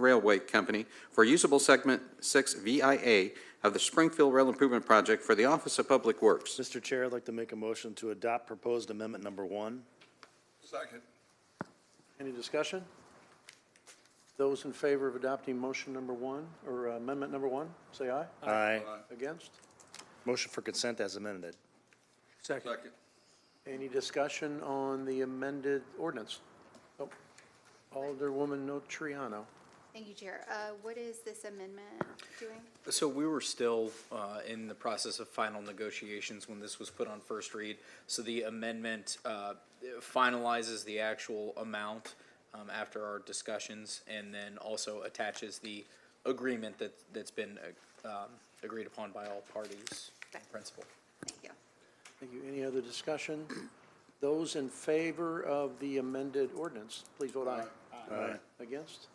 Railway Company for usable segment 6 VIA of the Springfield Rail Improvement Project for the Office of Public Works. Mr. Chair, I'd like to make a motion to adopt proposed amendment number one. Second. Any discussion? Those in favor of adopting motion number one, or amendment number one, say aye. Aye. Against? Motion for consent as amended. Second. Second. Any discussion on the amended ordinance? Oh, Alderwoman Notriano. Thank you, Chair. Uh, What is this amendment doing? So we were still uh, in the process of final negotiations when this was put on first read. So the amendment uh, finalizes the actual amount um, after our discussions and then also attaches the agreement that, that's been uh, um, agreed upon by all parties in principle. Thank you. Thank you. Any other discussion? Those in favor of the amended ordinance, please vote aye. Aye. Against?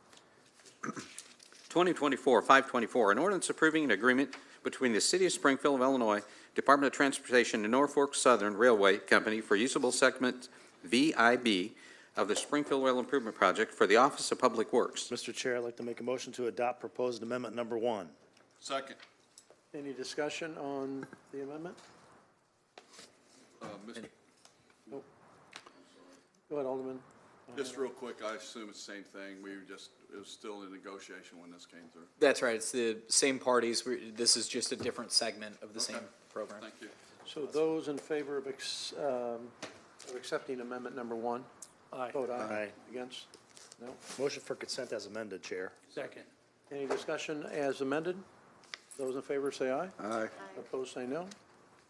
2024-524, an ordinance approving an agreement between the City of Springfield of Illinois Department of Transportation and Norfolk Southern Railway Company for usable segment VIB of the Springfield Rail Improvement Project for the Office of Public Works. Mr. Chair, I'd like to make a motion to adopt proposed amendment number one. Second. Any discussion on the amendment? Uh, Mr. Go ahead, Alderman. Just real quick, I assume it's the same thing. We were just, it was still in negotiation when this came through. That's right. It's the same parties. We- This is just a different segment of the same program. Thank you. So those in favor of, ex- um, of accepting amendment number one? Aye. Vote aye. Aye. Against? No. Motion for consent as amended, Chair. Any discussion as amended? Those in favor say aye. Aye. Opposed, say no.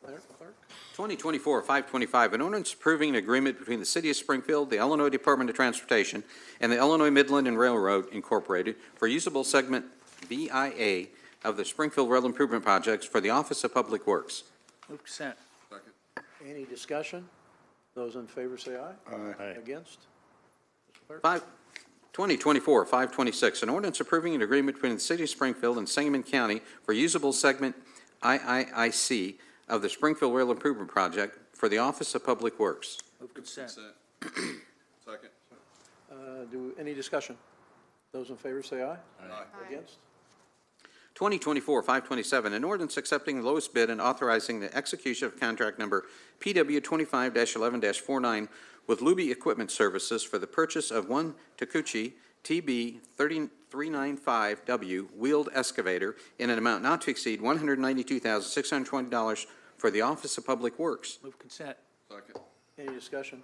Clerk- Clerk? 2024-525, an ordinance approving an agreement between the City of Springfield, the Illinois Department of Transportation, and the Illinois Midland and Railroad Incorporated for usable segment VIA of the Springfield Rail Improvement Projects for the Office of Public Works. Second. Any discussion? Those in favor say aye. Aye. Against? Five- 2024-526, an ordinance approving an agreement between the City of Springfield and Sangamon County for usable segment IIIC of the Springfield Rail Improvement Project for the Office of Public Works. Consent. Second. Uh, Do, any discussion? Those in favor say aye. Aye. Against? 2024-527, an ordinance accepting the lowest bid and authorizing the execution of contract number PW25-11-49 with Luby Equipment Services for the purchase of one Takuchi TB395W wheeled excavator in an amount not to exceed $192,620 for the Office of Public Works. Second. Any discussion?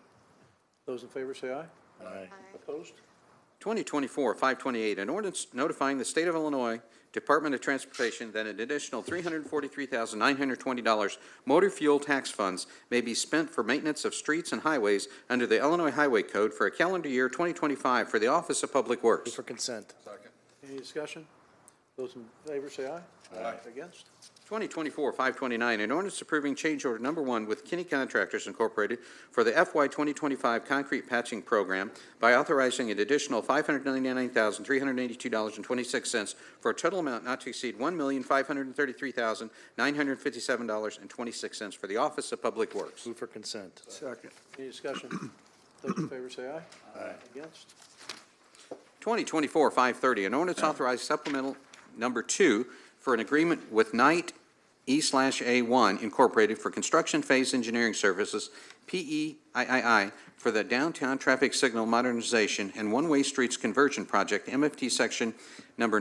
Those in favor say aye. Aye. Aye. Opposed? 2024-528, an ordinance notifying the State of Illinois Department of Transportation that an additional $343,920 motor fuel tax funds may be spent for maintenance of streets and highways under the Illinois Highway Code for a calendar year 2025 for the Office of Public Move Works. for consent. Second. Any discussion? Those in favor say aye. Aye. Against? 2024-529, an ordinance approving change order number one with Kenny Contractors Incorporated for the FY 2025 concrete patching program by authorizing an additional $599,382.26 for a total amount not to exceed $1,533,957.26 for the Office of Public Works. Move for consent. Second. Any discussion? Those in favor say aye. Aye. Against? 2024-530, an ordinance authorized supplemental number two for an agreement with Knight E E/A1 Incorporated for construction phase engineering services, E PEIII, for the downtown traffic signal modernization and one-way streets conversion project, MFT section number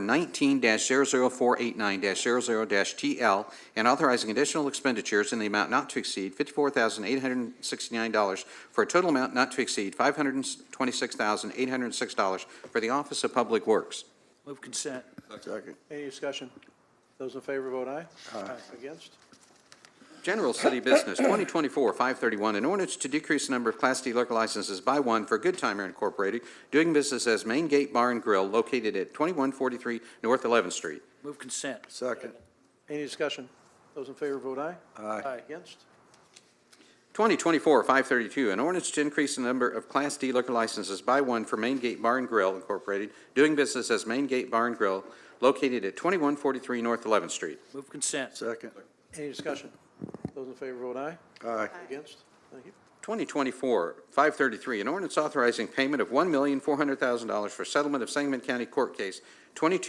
19-00489-00-TL, and authorizing additional expenditures in the amount not to exceed $54,869 for a total amount not to exceed $526,806 for the Office of Public Works. Second. Any discussion? Those in favor vote aye. Aye. Against? General City Business, 2024-531, an ordinance to decrease the number of Class D liquor licenses by one for Good Timer Incorporated, doing business as Main Gate Bar and Grill located at 2143 North 11th Street. Second. Any discussion? Those in favor vote aye. Aye. Against? 2024-532, an ordinance to increase the number of Class D liquor licenses by one for Main Gate Bar and Grill Incorporated, doing business as Main Gate Bar and Grill located at 2143 North 11th Street. Second. Any discussion? Those in favor vote aye. Aye. Against? Thank you. 2024-533, an ordinance authorizing payment of $1,400,000 for settlement of Sangamon County Court Case 22